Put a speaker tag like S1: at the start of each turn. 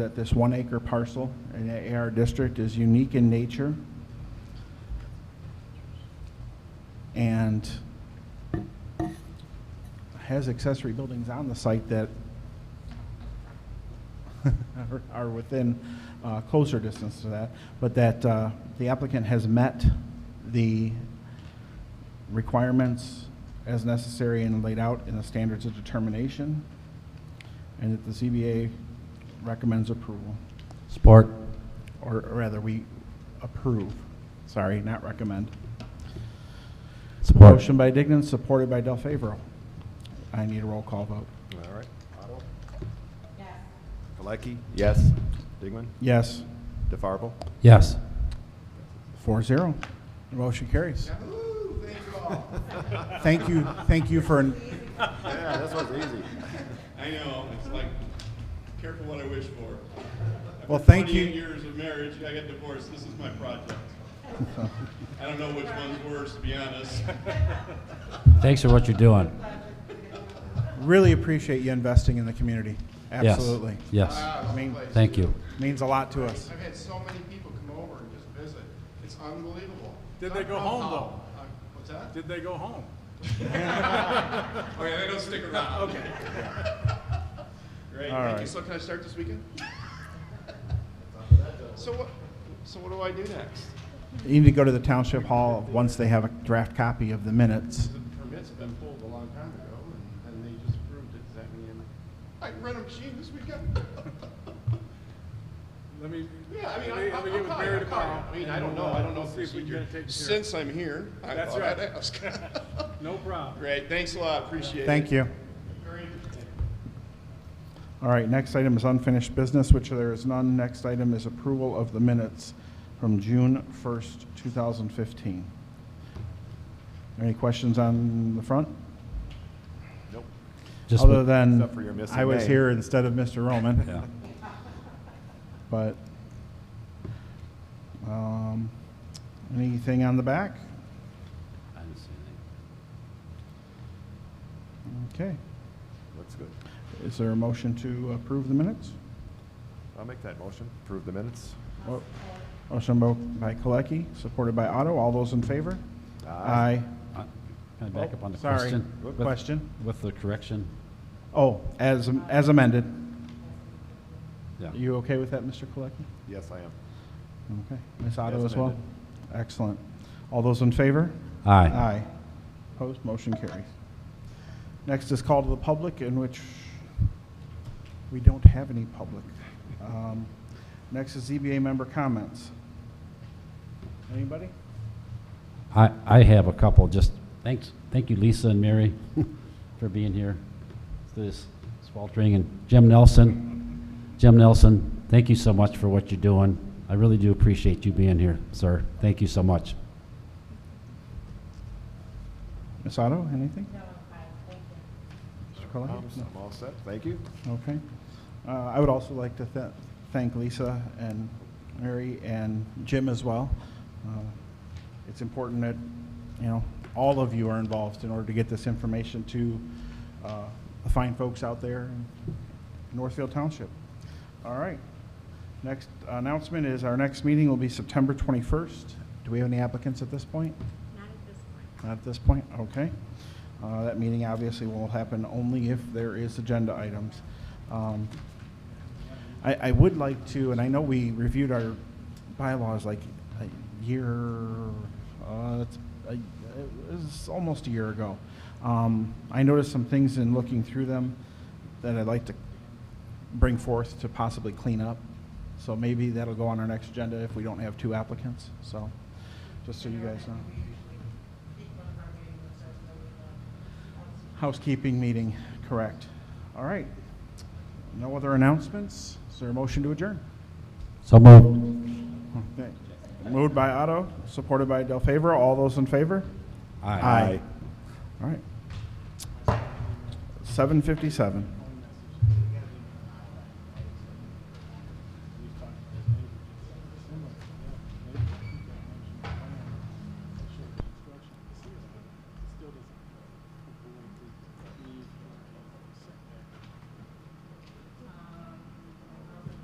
S1: that this one acre parcel in the AR district is unique in nature. And has accessory buildings on the site that are- are within uh, closer distance to that, but that uh, the applicant has met the requirements as necessary and laid out in the standards of determination, and that the ZBA recommends approval,
S2: Support.
S1: or or rather, we approve, sorry, not recommend.
S2: Support.
S1: Motion by Dignan, supported by Del Favero. I need a roll call vote.
S3: All right. Otto? Yes. Galecki? Digman?
S1: Yes,
S3: DeFarble?
S2: Yes.
S1: four zero. The motion carries.
S4: Thank you, thank you for,
S3: Yeah, this one's easy.
S5: I know, it's like, careful what I wish for.
S4: well, thank you.
S5: 28 years of marriage, I got divorced, this is my project. I don't know which one's worse, to be honest.
S2: Thanks for what you're doing.
S4: Really appreciate you investing in the community.
S2: Yes.
S4: Absolutely.
S2: Yes.
S1: I mean,
S2: Thank you.
S4: Means a lot to us.
S6: I've had so many people come over and just visit. It's unbelievable.
S7: Did they go home, though?
S6: Uh, What's that?
S7: Did they go home?
S6: Okay, they don't stick around. Okay. Great,
S1: All
S6: thank you.
S1: right.
S6: So can I start this weekend? So what, so what do I do next?
S1: You need to go to the Township Hall once they have a draft copy of the minutes.
S6: The permits have been pulled a long time ago and, and they just approved it. Does that mean I can rent a machine this weekend?
S7: Let me.
S6: Yeah, I mean,
S7: let
S6: I-
S7: me-
S6: I'll,
S7: let me get
S6: I'll
S7: with
S6: call you,
S7: Barry
S6: I'll call
S7: tomorrow,
S6: you. I mean,
S7: and
S6: I don't know,
S7: we'll,
S6: I
S7: uh,
S6: don't know
S7: we'll
S6: the
S7: See if we
S6: procedure.
S7: can take care of it.
S6: Since I'm here, I
S7: That's
S6: thought I'd
S7: right.
S6: ask.
S7: No problem.
S6: Great, thanks a lot, appreciate it.
S1: Thank you. All right, next item is unfinished business, which there is none. Next item is approval of the minutes from June 1st, 2015. Any questions on the front?
S3: Nope.
S2: Just
S1: Other than,
S3: Except for your missing
S1: I was
S3: name.
S1: here instead of Mr. Roman,
S2: Yeah.
S1: but, um, anything on the back?
S2: I didn't see anything.
S1: Okay.
S3: Looks good.
S1: Is there a motion to approve the minutes?
S3: I'll make that motion. Approve the minutes.
S1: Mo- Motion bo- by Colecki, supported by Otto. All those in favor?
S3: Aye.
S2: Uh, Can I back up on the
S1: Oh, Sorry.
S2: question?
S1: What
S2: With-
S1: question?
S2: With the correction?
S1: Oh, as as amended.
S2: Yeah.
S1: You okay with that, Mr. Colecki?
S3: Yes, I am.
S1: Okay. Ms. Otto
S3: As
S1: as well?
S3: amended.
S1: Excellent. All those in favor?
S2: Aye.
S1: Aye. Opposed? Motion carries. Next is call to the public, in which we don't have any public. Um, Next is ZBA member comments. Anybody?
S2: I, I have a couple, just, thanks, thank you Lisa and Mary for being here. This sweltering, and Jim Nelson, Jim Nelson, thank you so much for what you're doing. I really do appreciate you being here, sir. Thank you so much.
S1: Ms. Otto, anything? No, Mr. Colletti?
S3: Um,
S1: No.
S3: I'm all set. Thank you.
S1: Okay. Uh, I would also like to tha- thank Lisa and Mary and Jim as well. Uh, It's important that, you know, all of you are involved in order to get this information to uh, the fine folks out there in Northfield Township. All right. Next announcement is our next meeting will be September 21st. Do we have any applicants at this point?
S8: Not at this point.
S1: Not at this point, okay. Uh, That meeting obviously will happen only if there is agenda items. Um, I, I would like to, and I know we reviewed our bylaws like a year, uh, it's, a- it was almost a year ago. Um, I noticed some things in looking through them that I'd like to bring forth to possibly clean up. So maybe that'll go on our next agenda if we don't have two applicants, so, just so you guys know. Housekeeping meeting, correct. All right. No other announcements? Is there a motion to adjourn?
S2: So moved.
S1: Okay. Moved by Otto, supported by Del Favor. All those in favor? All right. Seven fifty-seven.